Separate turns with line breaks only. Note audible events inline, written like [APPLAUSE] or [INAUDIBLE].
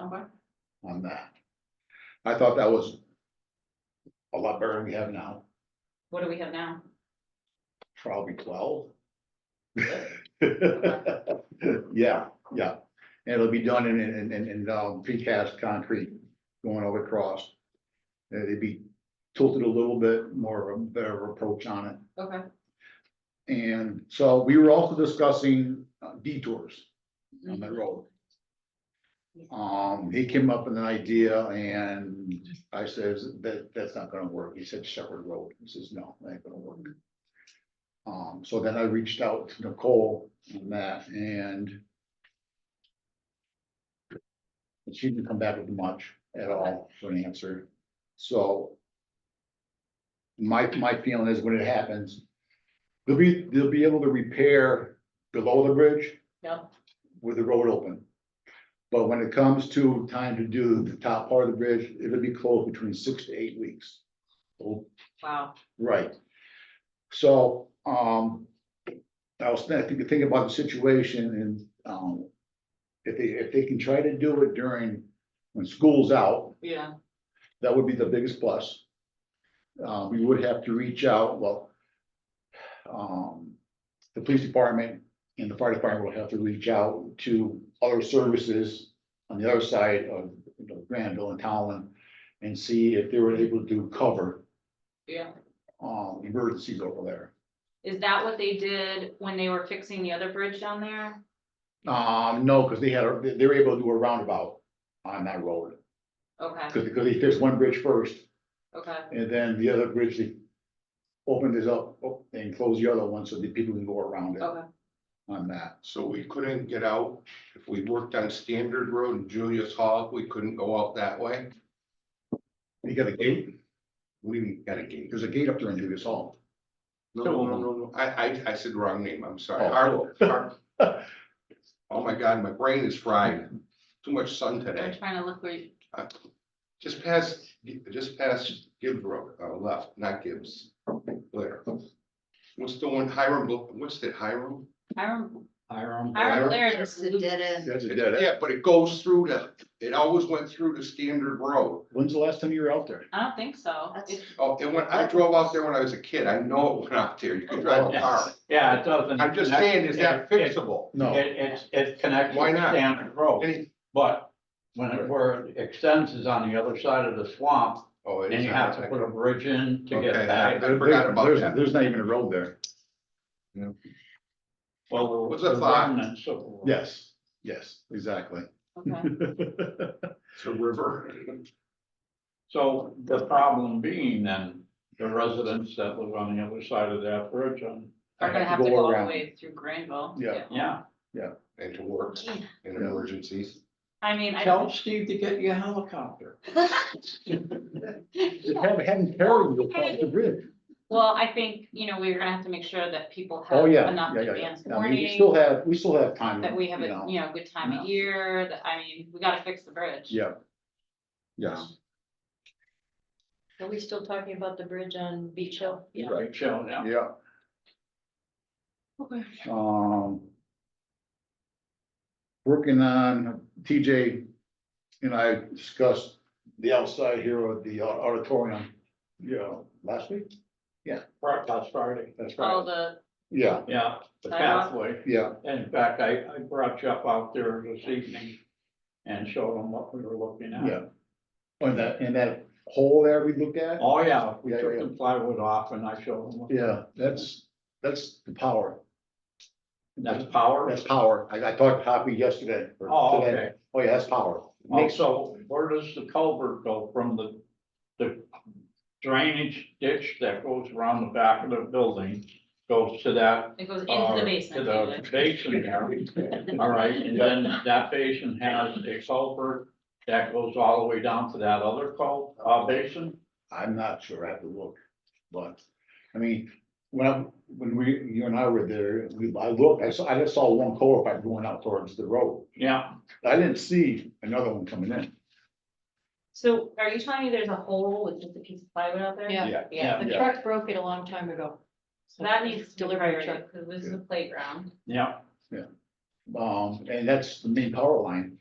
Okay.
on that. I thought that was a lot better than we have now,
What do we have
[LAUGHS]
now?
probably twelve. [LAUGHS] Yeah, yeah, and it'll be done in, in, in, in, um, precast concrete going all across. Uh, It'd be tilted a little bit more, of a better approach on it.
Okay,
And so we were also discussing uh, detours on that road. Um, he came up with an idea and I says, that, that's not gonna work. He said Shepherd Road. He says, no, that ain't gonna work. Um, so then I reached out to Nicole on that and she didn't come back with much at all for an answer. So my, my feeling is when it happens, They'll be, they'll be able to repair below the bridge
yep,
with the road open. But when it comes to time to do the top part of the bridge, it'll be closed between six to eight weeks. Oh,
wow,
Right. So, um, I was thinking, thinking about the situation and, um, if they, if they can try to do it during, when school's out,
yeah,
that would be the biggest plus. Uh, we would have to reach out, well. Um, the police department and the fire department will have to reach out to other services. On the other side of, you know, Granville and Talon and see if they were able to cover,
yeah.
um, emergencies over there.
Is that what they did when they were fixing the other bridge down there?
Um, no, because they had, a- they were able to do a roundabout on that road,
Okay,
because, because they fixed one bridge first.
okay,
And then the other bridge, they opened this up op- and closed the other one so that people can go around it
okay,
on that.
So we couldn't get out, if we worked on Standard Road and Julius Hall, we couldn't go out that way.
You got a gate,
We even got a gate.
there's a gate up there in Dugas Hall.
No, no, no, no, no. I, I, I said wrong name, I'm sorry.
Oh.
Our- our- Oh my God, my brain is fried. Too much sun
I'm
today.
trying to look where you,
Just past, just past Gibbs Road, uh, left, not Gibbs. Blair. What's the one Hiram, Bl- what's that Hiram?
Hiram,
Hiram.
Hiram Laird.
It's the dead end.
That's a dead end.
Yeah, but it goes through the, it always went through the Standard Road.
When's the last time you were out there?
I don't think so.
That's-
If-
Oh, and when I drove out there when I was a kid, I know it went out there, you could drive a car.
Yeah, it doesn't.
I'm just saying, is that fixable?
No,
It, it's, it connects.
Why not?
Standard Road,
Any-
but when it, where it extends is on the other side of the swamp,
Oh, it
and
is.
you have to put a bridge in to get
Okay,
back.
I forgot about
there's,
that.
there's not even a road there.
Well,
What's
the
the thought?
remnants of-
Yes, yes, exactly.
Okay,
[LAUGHS]
It's a river. [LAUGHS]
So the problem being then, the residents that live on the other side of that bridge on,
Are gonna have to go all the way through Granville.
Yeah.
yeah.
And to work in emergencies.
I mean, I
Tell
don't.
Steve to get you a helicopter.
Just have, have them carry you across the bridge.
Well, I think, you know, we're gonna have to make sure that people
Oh,
have
yeah.
enough
yeah, yeah, yeah.
advance
I mean,
warning.
We still have, we still have time.
that we have
you
a,
know.
you know, good time of year, that, I mean, we gotta fix the bridge.
Yeah. Yes,
Are we still talking about the bridge on Beach Hill?
Yeah.
Right, Joe, yeah.
yeah,
Okay.
um. Working on TJ and I discussed the outside here of the au- auditorium, you know, last week,
Right, last Friday.
that's
All
right.
the,
Yeah,
Yeah, the
Sidewalk.
pathway.
yeah,
In fact, I, I brought you up out there this evening and showed them what we were looking
yeah.
at.
And that, and that hole there we looked at,
Oh, yeah, we
Yeah,
took
yeah.
the plywood off and I showed them. what-
yeah, that's, that's the power,
That's power.
that's power. I, I talked to Hoppy yesterday. or
Oh,
today.
okay.
Oh, yeah, that's power. Makes,
Also, where does the culvert go from the, the drainage ditch that goes around the back of the building? Goes to that.
it goes
uh,
into the basement.
To
David.
the basin
[LAUGHS]
there. All right, and then that basin has a culvert that goes all the way down to that other cul, uh, basin?
I'm not sure, I have to look, but, I mean, when I, when we, you and I were there, we, I looked, I saw, I just saw one culvert pipe going out towards the road.
Yeah,
I didn't see another one coming in.
So are you telling me there's a hole with just a piece of plywood out there?
Yeah,
Yeah.
Yeah,
the
Yeah.
truck broke it a long time ago.
so that needs to be
Delivery
priority,
truck.
because this is a playground.
yeah.
Um, and that's the main power line,